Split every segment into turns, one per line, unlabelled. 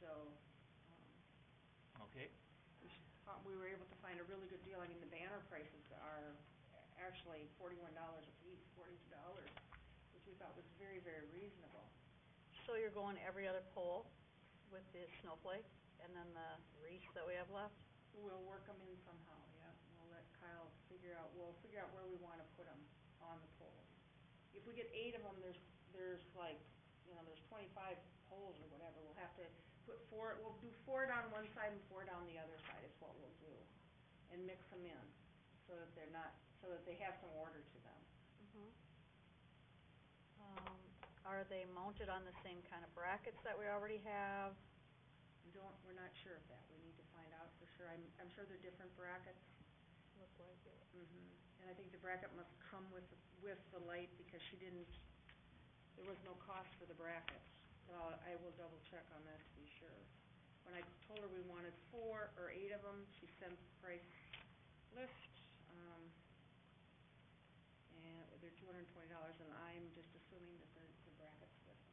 so, um,
Okay,
we sh- uh, we were able to find a really good deal. I mean, the banner prices are actually forty-one dollars a piece, forty-two dollars, which we thought was very, very reasonable.
So you're going every other pole with the snowflake and then the wreath that we have left?
We'll work them in somehow, yeah. We'll let Kyle figure out, we'll figure out where we wanna put them on the poles. If we get eight of them, there's, there's like, you know, there's twenty-five poles or whatever. We'll have to put four, we'll do four down one side and four down the other side is what we'll do. And mix them in, so that they're not, so that they have some order to them.
Mm-hmm. Um, are they mounted on the same kind of brackets that we already have?
We don't, we're not sure of that. We need to find out for sure. I'm, I'm sure they're different brackets.
Look like it.
Mm-hmm. And I think the bracket must come with, the- with the light because she didn't, there was no cost for the brackets. Uh, I will double check on that to be sure. When I told her we wanted four or eight of them, she sent the price list, um, and they're two hundred and twenty dollars and I'm just assuming that the, the brackets with them.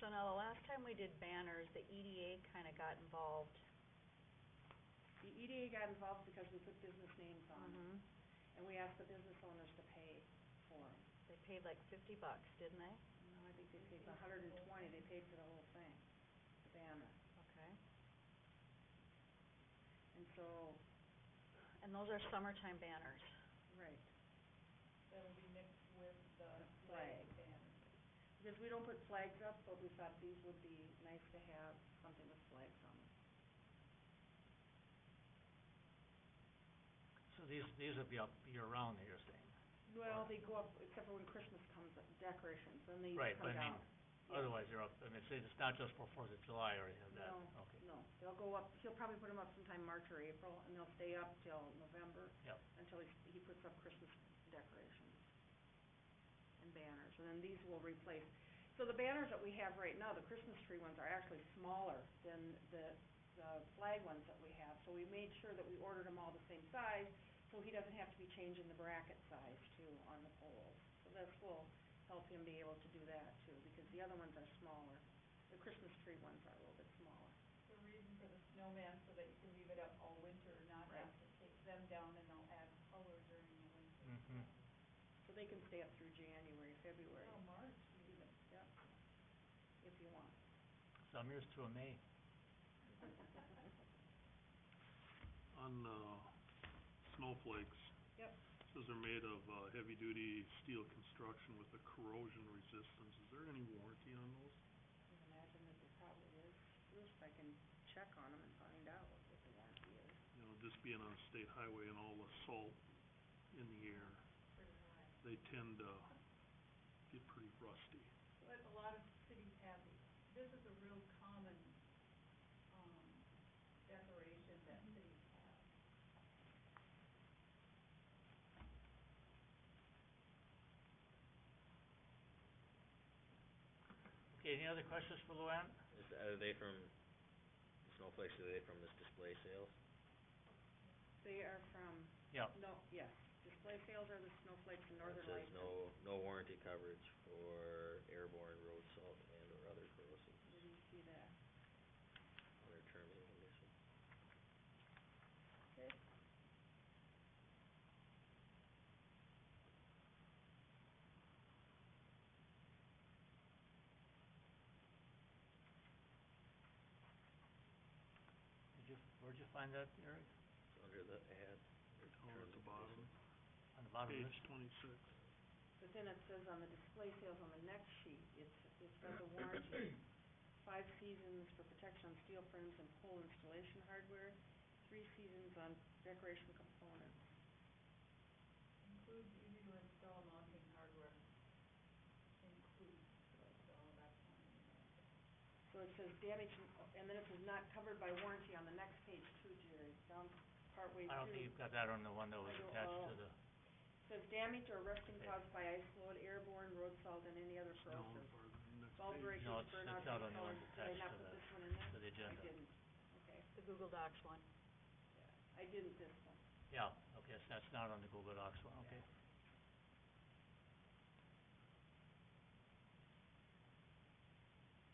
So now, the last time we did banners, the EDA kinda got involved.
The EDA got involved because we put business names on them
Mm-hmm.
and we asked the business owners to pay for them.
They paid like fifty bucks, didn't they?
No, I think they paid a hundred and twenty, they paid for the whole thing, the banner.
Okay.
And so,
And those are summertime banners.
right,
that'll be mixed with the
The
flag
flag.
and
because we don't put flags up, but we thought these would be nice to have, something with flags on them.
so these, these will be up year-round, you're saying?
Well, they go up, except for when Christmas comes, up, decorations, then these
Right,
come
but I mean,
down. Yeah.
Otherwise, they're up, I mean, it's, it's not just for Fourth of July or anything like that?
No.
Okay,
No, they'll go up, he'll probably put them up sometime March or April, and they'll stay up till November,
yep.
until he, he puts up Christmas decorations and banners, and then these will replace. So the banners that we have right now, the Christmas tree ones are actually smaller than the, the flag ones that we have. So we made sure that we ordered them all the same size, so he doesn't have to be changing the bracket size too on the poles. So this will help him be able to do that too, because the other ones are smaller. The Christmas tree ones are a little bit smaller.
the reason for the snowman so that you can leave it up all winter, not have to take them down and they'll add color during the winter.
Mm-hmm.
So they can stay up through January, February,
Oh, March even.
yep, if you want.
Some years to a May.
On, uh, snowflakes.
Yep.
Says they're made of, uh, heavy-duty steel construction with a corrosion resistance. Is there any warranty on
I
those?
would imagine that there probably is, At least I can check on them and find out what the warranty is.
You know, just being on a state highway and all the salt in the air, they tend to get pretty rusty.
But a lot of cities have these. This is a real common, um, decoration that cities have.
Okay, any other questions for Luann?
Is, are they from, the snowflakes, are they from this display sales?
They are from,
Yep,
no, yes, display sales are the snowflakes and northern
It
lights.
says no, no warranty coverage for airborne road salt and or other corrosive,
Did you see that?
other terms and conditions.
Okay.
did you, where'd you find that, Eric?
It's under the ad,
Oh,
under
at
terms
the
and
bottom,
conditions.
On the bottom of
page
this?
twenty-six.
But then it says on the display sales on the next sheet, it's, it's got the warranty, five seasons for protection on steel frames and pole installation hardware, three seasons on decoration components.
Includes easy to install mounting hardware. Includes, so it's all about time.
So it says damage, and then it says not covered by warranty on the next page too, Jerry, down partway through.
I don't think you've got that on the one that was
I don't
attached
know.
to the,
Says damage or rusting
Okay.
caused by ice load, airborne, road salt, and any other
Down
corrosive.
farther, next
All
page.
breakers,
No, it's-
burnouts,
it's out on
and
the one
colors. Did I
attached
not
to
put
the-
this one in there?
to
I
the agenda.
didn't. Okay,
The Google Docs one.
I didn't this one.
Yeah, okay, so that's not on the Google Docs one, okay.